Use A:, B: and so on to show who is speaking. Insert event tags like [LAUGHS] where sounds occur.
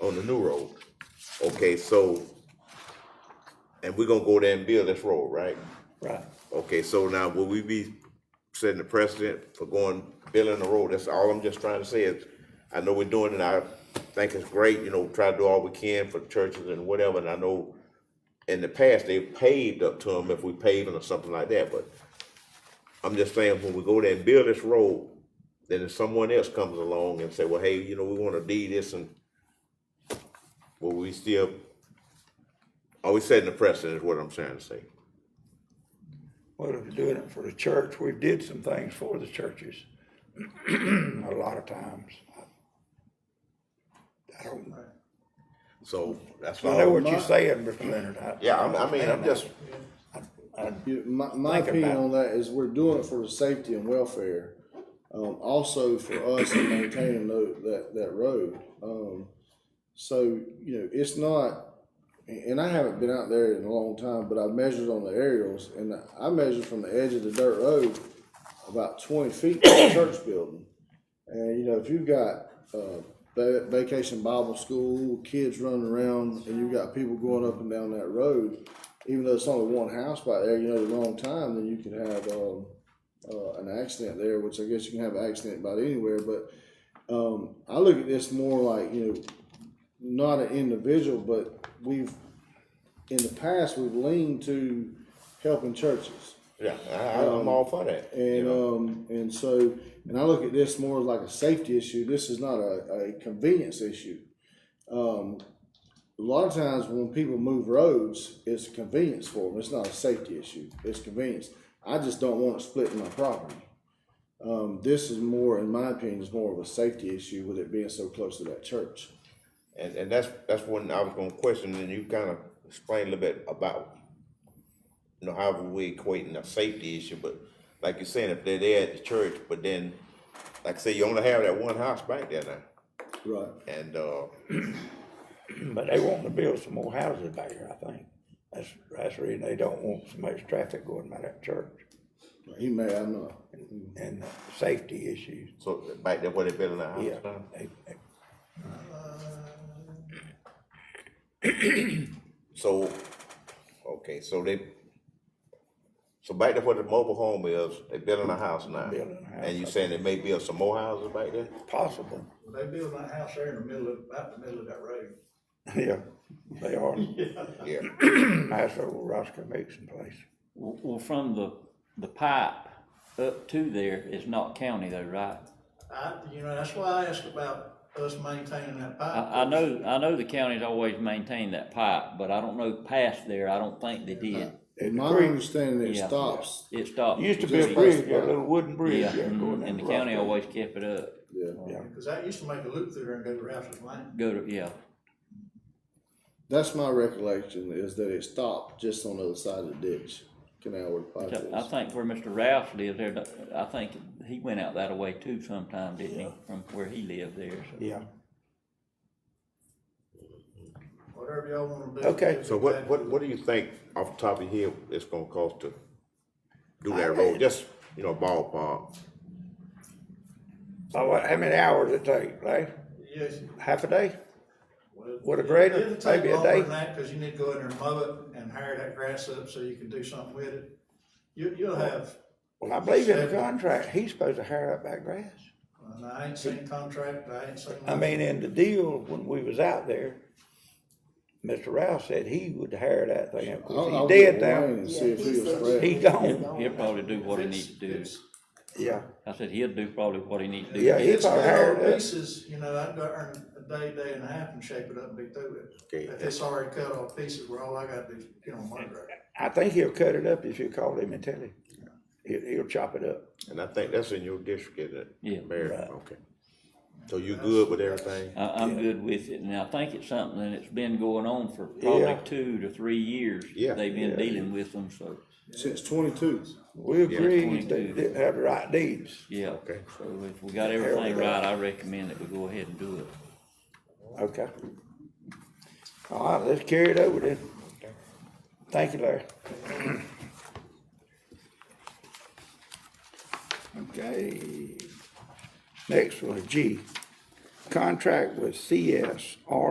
A: on the new road. Okay, so, and we're gonna go there and build this road, right?
B: Right.
A: Okay, so now will we be setting the precedent for going, building the road? That's all I'm just trying to say is, I know we're doing it, I think it's great, you know, try to do all we can for churches and whatever, and I know in the past, they paved up to them if we paving or something like that, but I'm just saying, when we go there and build this road, then if someone else comes along and say, well, hey, you know, we wanna do this and will we still, are we setting the precedent is what I'm trying to say?
B: Well, if you're doing it for the church, we did some things for the churches, [CLEARS THROAT] a lot of times. I- I don't,
A: So that's all.
B: I know what you're saying, Mr. Leonard. I-
A: Yeah, I'm, I mean, I'm just,
C: You- My, my
B: Think
C: opinion
B: about
C: on that is we're doing it for the safety and welfare, um, also for us in maintaining tho- that, that road. Um, so, you know, it's not, and and I haven't been out there in a long time, but I measured on the aerials and I measured from the edge of the dirt road about twenty feet to the church building. And, you know, if you've got, uh, va- vacation Bible school, kids running around, and you've got people going up and down that road, even though it's only one house by there, you know, the wrong time, then you could have, um, uh, an accident there, which I guess you can have an accident about anywhere, but, um, I look at this more like, you know, not an individual, but we've, in the past, we've leaned to helping churches.
A: yeah, I, I-
B: Um,
A: I'm all for that.
C: And
B: uh,
C: um, and so, and I look at this more like a safety issue. This is not a, a convenience issue. Um, a lot of times when people move roads, it's a convenience for them. It's not a safety issue. It's convenience. I just don't want it splitting my property. Um, this is more, in my opinion, is more of a safety issue with it being so close to that church.
A: And, and that's, that's one I was gonna question, and you kind of explained a little bit about, you know, how we equating a safety issue, but like you're saying, if they're there at the church, but then, like I say, you only have that one house back there now,
C: Right.
A: and, uh,
B: But they wanting to build some more houses back here, I think. That's, that's the reason they don't want so much traffic going by that church
C: He may, I'm not.
B: and the safety issues.
A: so back there where they building that house
B: Yeah.
A: now.
B: they- they-
A: So, okay, so they, so back there where the mobile home is, they building a house now.
B: Building a house
A: And you
B: up
A: saying there may build some more houses back there?
B: Possible, [LAUGHS]
D: They build my house there in the middle of, about the middle of that road.
B: yeah,
A: [LAUGHS]
B: they are.
A: Yeah.
B: That's over Roscoe Mixon place.
E: Well, well, from the, the pipe up to there is not county though, right?
D: I, you know, that's why I asked about us maintaining that pipe.
E: I, I know, I know the county's always maintained that pipe, but I don't know past there, I don't think they did.
B: At
C: My
B: the creek.
C: understanding, it
E: Yeah.
C: stops.
E: It stopped.
B: Used to be a
C: Just
B: bridge, a
C: like-
B: little wooden bridge.
E: Yeah, mhm,
B: going
E: and the
B: into
E: county
B: Roscoe.
E: always kept it up,
C: Yeah.
B: Yeah.
D: Cause I used to make a loop through there and go to Rouse's Lane.
E: go to, yeah,
C: That's my recollection is that it stopped just on the other side of the ditch, canal where the pipe
E: So I
C: is.
E: think where Mr. Rouse lived there, I think he went out that way too sometime, didn't he, from where he lived there, so.
B: Yeah,
D: Whatever y'all wanna do.
B: Okay.
A: So what, what, what do you think off the top of your head it's gonna cost to do
B: I-
A: that road, just, you know, ballpark?
B: so what, how many hours it take, like,
D: Yes.
B: half a day?
D: well,
B: With a grader,
D: it'll take
B: maybe a
D: longer
B: day.
D: than that, Cause you need to go in there and mow it and hire that grass up so you can do something with it. You, you'll have,
B: Well, I believe in the
D: Seven.
B: contract, he's supposed to hire up that grass.
D: and I ain't seen contract, I ain't seen.
B: I mean, in the deal, when we was out there, Mr. Rouse said he would hire that thing. Of
C: I'll- I'll
B: course, he
C: get
B: did
C: with Wayne
B: now.
C: and See if he was
B: oh, He
C: spread.
B: gone.
E: He'll probably do what he needs to do.
D: It's-
B: Yeah,
E: I said he'll do probably what he needs to do.
B: Yeah, he-
D: It's it's
B: probably hired
D: cut
B: up.
D: on pieces, you know, I'd go earn a day, day and a half and shape it up and be through
A: Okay.
D: it. If it's already cut off pieces, where all I gotta do is get on my grader.
B: I think he'll cut it up if you call him and tell him. He'll, he'll chop it up.
A: And I think that's in your district, isn't it?
E: Yeah.
A: Mayor,
B: Right.
A: okay. So you good with everything?
E: I, I'm good with it, and I think it's something that's been going on for probably
B: Yeah.
E: two to three years.
A: Yeah.
E: They've been
B: Yeah.
E: dealing with them, so,
C: Since twenty-two.
B: We agreed they
E: 22.
B: didn't have the right deeds.
E: yeah.
A: Okay.
E: So if we got everything right, I recommend that we go ahead and do it.
B: Okay. All right, let's carry it over then. Thank you, Larry. Okay. Next one, G, contract with CSR